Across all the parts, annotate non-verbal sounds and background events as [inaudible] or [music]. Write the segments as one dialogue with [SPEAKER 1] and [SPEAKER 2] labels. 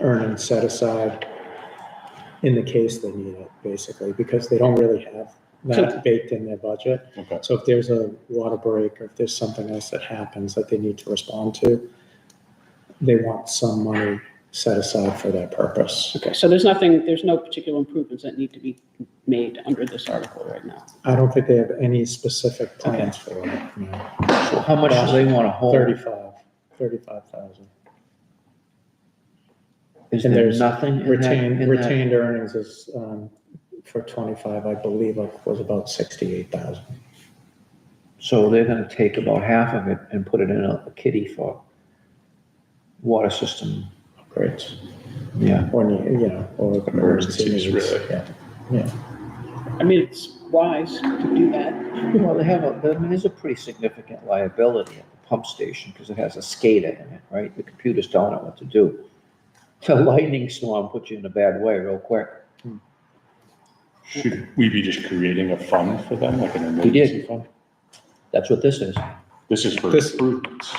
[SPEAKER 1] earning set aside in the case they need it, basically, because they don't really have that baked in their budget.
[SPEAKER 2] Okay.
[SPEAKER 1] So if there's a water break or if there's something else that happens that they need to respond to, they want some money set aside for that purpose.
[SPEAKER 3] Okay, so there's nothing, there's no particular improvements that need to be made under this article right now.
[SPEAKER 1] I don't think they have any specific plans for it, no.
[SPEAKER 4] How much do they want to hold?
[SPEAKER 1] Thirty-five, thirty-five thousand.
[SPEAKER 4] Is
[SPEAKER 1] And
[SPEAKER 4] there
[SPEAKER 1] there's
[SPEAKER 4] nothing in that?
[SPEAKER 1] Retained,
[SPEAKER 4] in that-
[SPEAKER 1] retained earnings is, um, for twenty-five, I believe, like, was about sixty-eight thousand.
[SPEAKER 4] So they're gonna take about half of it and put it in a kitty for water system,
[SPEAKER 1] Great.
[SPEAKER 4] yeah.
[SPEAKER 1] Or, ne- you know, or.
[SPEAKER 2] Emergencies, really.
[SPEAKER 1] Yeah.
[SPEAKER 3] I mean, it's wise to do that.
[SPEAKER 4] Well, they have, a. I mean, there's a pretty significant liability at the pump station, because it has a SCADA in it, right? The computers don't know what to do. A [laughs] lightning storm puts you in a bad way real quick.
[SPEAKER 2] Should we be just creating a fund for them, like an
[SPEAKER 4] We
[SPEAKER 2] emergency
[SPEAKER 4] did,
[SPEAKER 2] fund?
[SPEAKER 4] that's what this is.
[SPEAKER 2] This is for
[SPEAKER 1] This-
[SPEAKER 2] improvements.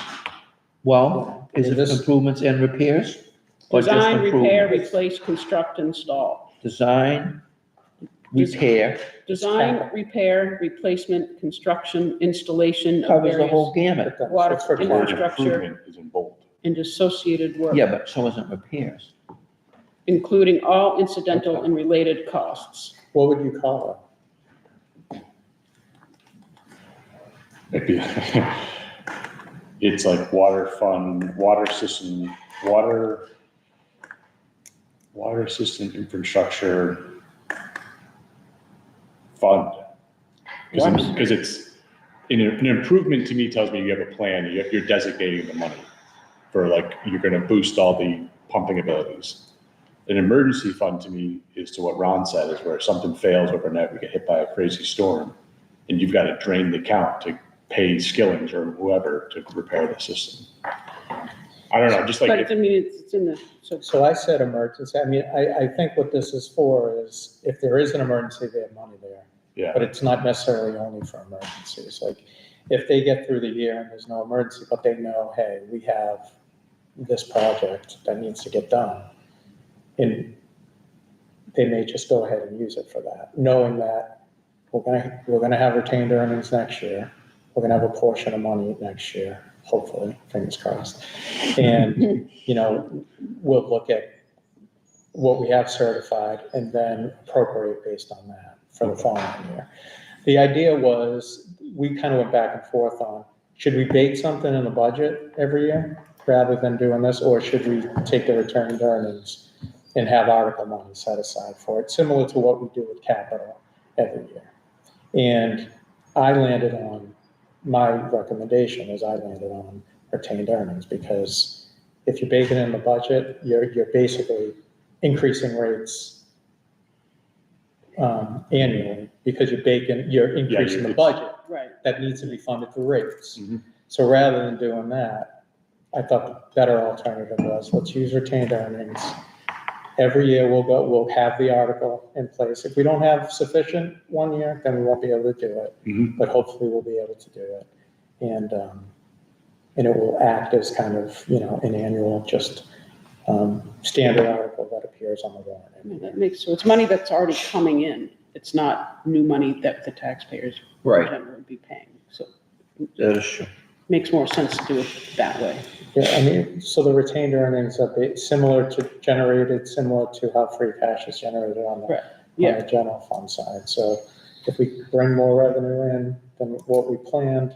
[SPEAKER 4] Well, is it
[SPEAKER 1] This-
[SPEAKER 4] improvements and repairs? or just
[SPEAKER 3] Design, repair,
[SPEAKER 4] improvements?
[SPEAKER 3] replace, construct, install.
[SPEAKER 4] Design, repair,
[SPEAKER 3] Design, repair, replacement, construction, installation of
[SPEAKER 4] covers the whole
[SPEAKER 3] various
[SPEAKER 4] gamut.
[SPEAKER 3] water
[SPEAKER 2] The word
[SPEAKER 3] infrastructure
[SPEAKER 2] improvement is in bold.
[SPEAKER 3] and associated work,
[SPEAKER 4] Yeah, but so isn't repairs.
[SPEAKER 3] including all incidental and related costs.
[SPEAKER 1] What would you call
[SPEAKER 2] It'd be- [laughs] It's like water fund, water system, water, water system infrastructure fund. Because it's, an an improvement to me tells me you have a plan, you- you're designating the money for like, you're going to boost all the pumping abilities. An emergency fund to me is to what Ron said, is where if something fails overnight, we get hit by a crazy storm and you've got to drain the account to pay Skillings or whoever to repair the system. I don't know, just like,
[SPEAKER 3] But
[SPEAKER 2] if-
[SPEAKER 3] I mean, it's it's in the, so
[SPEAKER 1] it? So I said emergency, I mean, I, I think what this is for is if there is an emergency, they have money there. But
[SPEAKER 2] yeah,
[SPEAKER 1] it's not necessarily only for emergencies, like, if they get through the year and there's no emergency, but they know, hey, we have this project that needs to get done. And they may just go ahead and use it for that, knowing that we're gonna, we're gonna have retained earnings next year. We're gonna have a portion of money next year, hopefully, fingers crossed. And, you know, we'll look at what we have certified and then appropriate based on that for the following year. The idea was, we kind of went back and forth on, should we bake something in the budget every year rather than doing this? Or should we take the returned earnings and have article money set aside for it, similar to what we do with capital every year? And I landed on, my recommendation is I landed on retained earnings because if you bake it in the budget, you're, you're basically increasing rates um, annually because you're baking, you're increasing the
[SPEAKER 2] it's-
[SPEAKER 1] budget
[SPEAKER 3] Right.
[SPEAKER 1] that needs to be funded through rates.
[SPEAKER 2] Mhm.
[SPEAKER 1] So rather than doing that, I thought the better alternative was, let's use retained earnings. Every year we'll go, we'll have the article in place. If we don't have sufficient one year, then we won't be able to do it.
[SPEAKER 2] Mhm.
[SPEAKER 1] But hopefully we'll be able to do it. And, um, and it will act as kind of, you know, an annual, just, um, standard article that appears on the warrant.
[SPEAKER 3] I mean, That makes, so it's money that's already coming in. It's not new money that the taxpayers
[SPEAKER 4] Right.
[SPEAKER 3] generally be paying. So
[SPEAKER 4] That is true.
[SPEAKER 3] makes more sense to do it that way.
[SPEAKER 1] Yeah, I mean, so the retained earnings are ba- similar to generated, similar to how free cash is generated on the,
[SPEAKER 3] Right,
[SPEAKER 1] on
[SPEAKER 3] yeah.
[SPEAKER 1] the general fund side. So if we bring more revenue in than what we planned,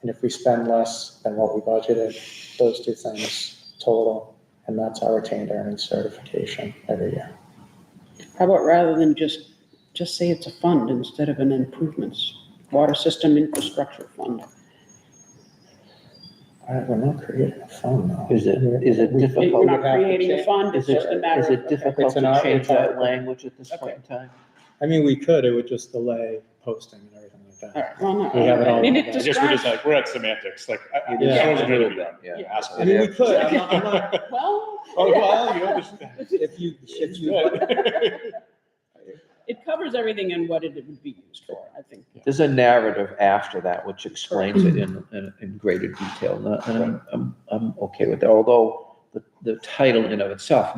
[SPEAKER 1] and if we spend less than what we budgeted, those two things total, and that's our retained earnings certification every year.
[SPEAKER 3] How about rather than just, just say it's a fund instead of an improvements, water system infrastructure fund?
[SPEAKER 1] All right, we're not creating a fund though.
[SPEAKER 4] Is it, is it
[SPEAKER 3] You're
[SPEAKER 4] difficult?
[SPEAKER 3] not
[SPEAKER 1] have to
[SPEAKER 3] creating a
[SPEAKER 1] change-
[SPEAKER 3] fund, it's
[SPEAKER 4] Is
[SPEAKER 3] just a
[SPEAKER 4] it, is
[SPEAKER 3] matter
[SPEAKER 4] it
[SPEAKER 3] of.
[SPEAKER 4] difficult
[SPEAKER 1] It's an
[SPEAKER 4] to
[SPEAKER 1] art-
[SPEAKER 4] change
[SPEAKER 1] it's art.
[SPEAKER 4] that language at this point in time?
[SPEAKER 1] I mean, we could, it would just delay posting and everything like
[SPEAKER 3] All
[SPEAKER 1] that.
[SPEAKER 3] right, well, no,
[SPEAKER 1] We have it all
[SPEAKER 3] I
[SPEAKER 1] in
[SPEAKER 3] mean,
[SPEAKER 1] there.
[SPEAKER 3] it
[SPEAKER 2] I guess we're just
[SPEAKER 3] describes,
[SPEAKER 2] like, we're at semantics, like, I, I,
[SPEAKER 4] It
[SPEAKER 3] is
[SPEAKER 2] I
[SPEAKER 4] a
[SPEAKER 2] wasn't gonna
[SPEAKER 4] little
[SPEAKER 2] be done.
[SPEAKER 4] bit, yeah.
[SPEAKER 1] I
[SPEAKER 2] Asshole.
[SPEAKER 1] mean, we could, I'm not, I'm not,
[SPEAKER 3] well.
[SPEAKER 2] Oh, well, you know, this-
[SPEAKER 1] if you, if you.
[SPEAKER 3] It covers everything and what it would be used for, I think.
[SPEAKER 4] There's a narrative after that which explains it in, in, in greater detail, and I- and I'm, I'm, I'm okay with that, although the, the title in of itself